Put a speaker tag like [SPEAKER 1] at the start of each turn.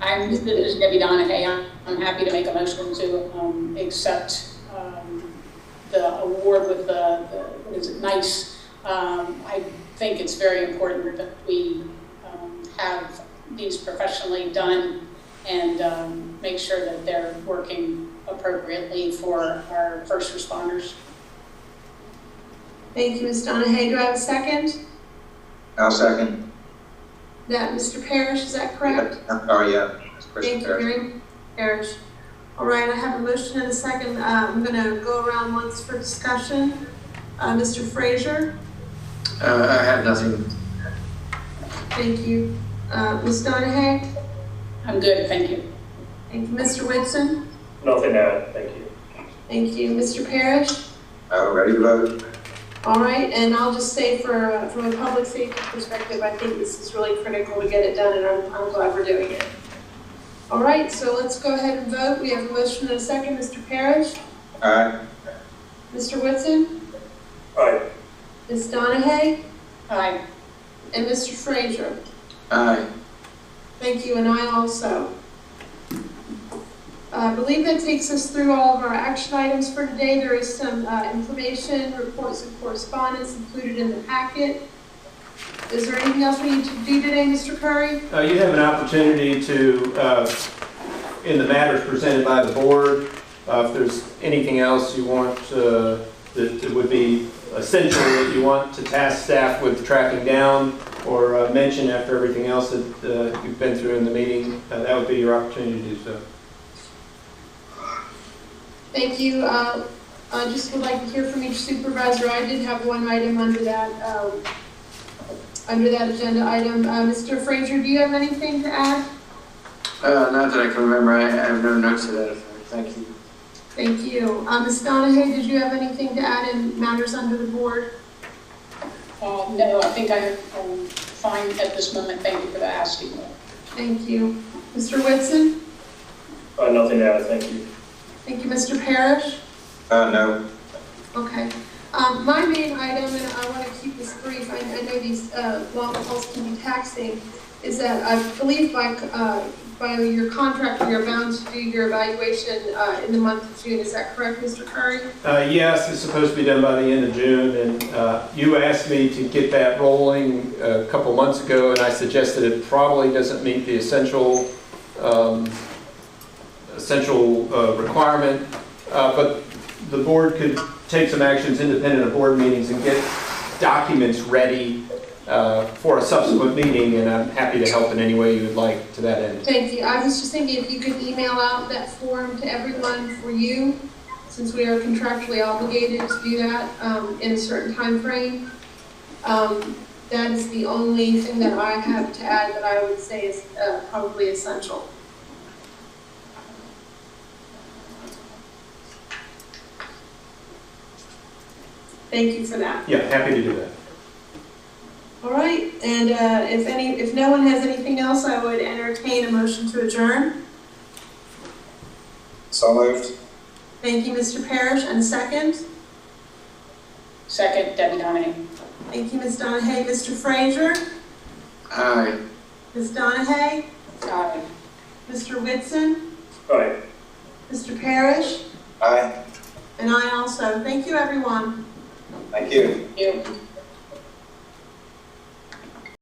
[SPEAKER 1] I'm, this is Debbie Donahue. I'm- I'm happy to make a motion to um, accept um, the award with the, the- what is it, NICE. Um, I think it's very important that we um, have these professionally done and um, make sure that they're working appropriately for our first responders.
[SPEAKER 2] Thank you, Ms. Donahue. Do I have a second?
[SPEAKER 3] I'll second.
[SPEAKER 2] That, Mr. Parrish, is that correct?
[SPEAKER 3] Oh, yeah. That's Christian
[SPEAKER 2] Thank you,
[SPEAKER 3] Parrish.
[SPEAKER 2] Mary Parrish. All right, I have a motion and a second. Uh, I'm going to go around once for discussion. Uh, Mr. Frazier?
[SPEAKER 4] Uh, I have nothing.
[SPEAKER 2] Thank you. Uh, Ms. Donahue?
[SPEAKER 1] I'm good, thank you.
[SPEAKER 2] Thank you, Mr. Whitson?
[SPEAKER 5] Nothing to add, thank you.
[SPEAKER 2] Thank you, Mr. Parrish?
[SPEAKER 3] Uh, ready to vote?
[SPEAKER 2] All right, and I'll just say for, uh, from a public safety perspective, I think this is really critical to get it done, and I'm, I'm glad we're doing it. All right, so let's go ahead and vote. We have a motion and a second. Mr. Parrish?
[SPEAKER 3] Aye.
[SPEAKER 2] Mr. Whitson?
[SPEAKER 5] Aye,
[SPEAKER 2] Ms. Donahue?
[SPEAKER 1] Aye,
[SPEAKER 2] And Mr. Frazier?
[SPEAKER 3] Aye.
[SPEAKER 2] Thank you, and I also. I believe that takes us through all of our action items for today. There is some uh, information, reports and correspondence included in the packet. Is there anything else we need to do today, Mr. Curry?
[SPEAKER 6] Uh, You have an opportunity to, uh, in the matters presented by the board, uh, if there's anything else you want, uh, that that would be essential that you want to task staff with tracking down or uh, mention after everything else that uh, you've been through in the meeting, uh, that would be your opportunity to do so.
[SPEAKER 2] Thank you. Uh, I just would like to hear from each supervisor. I did have one item under that, um, under that agenda item. Uh, Mr. Frazier, do you have anything to add?
[SPEAKER 4] Uh, not that I can remember. I, I have no notes to that effect. Thank you.
[SPEAKER 2] Thank you. Uh, Ms. Donahue, did you have anything to add in matters under the board?
[SPEAKER 1] Uh, no, I think I'm I'm fine at this moment, thank you for the asking.
[SPEAKER 2] Thank you. Mr. Whitson?
[SPEAKER 5] uh, nothing to add, thank you.
[SPEAKER 2] Thank you, Mr. Parrish?
[SPEAKER 3] Uh, no.
[SPEAKER 2] Okay. Um, my main item, and I want to keep this brief, I, I know these, uh, long hauls can be taxing, is that I believe by, uh, by your contract, you're bound to do your evaluation, uh, in the month of June. Is that correct, Mr. Curry?
[SPEAKER 6] Uh, Yes, it's supposed to be done by the end of June, and uh, you asked me to get that rolling uh, a couple months ago, and I suggested it probably doesn't meet the essential, um, essential uh, requirement, Uh, but the board could take some actions independent of board meetings and get documents ready uh, for a subsequent meeting, and I'm happy to help in any way you would like to that end.
[SPEAKER 2] Thank you. I was just thinking if you could email out that form to everyone for you, since we are contractually obligated to do that um, in a certain time frame. Um, That is the only thing that I have to add that I would say is uh, probably essential. Thank you for that.
[SPEAKER 6] Yeah, happy to do that.
[SPEAKER 2] All right, and uh, if any, if no one has anything else, I would entertain a motion to adjourn.
[SPEAKER 3] So moved.
[SPEAKER 2] Thank you, Mr. Parrish, and second.
[SPEAKER 1] Second, Debbie Donahue.
[SPEAKER 2] Thank you, Ms. Donahue, Mr. Frazier,
[SPEAKER 4] Aye.
[SPEAKER 2] Ms. Donahue,
[SPEAKER 1] Aye.
[SPEAKER 2] Mr. Whitson,
[SPEAKER 5] Aye.
[SPEAKER 2] Mr. Parrish,
[SPEAKER 3] Aye.
[SPEAKER 2] and I also. Thank you, everyone.
[SPEAKER 3] Thank you.
[SPEAKER 1] Thank you.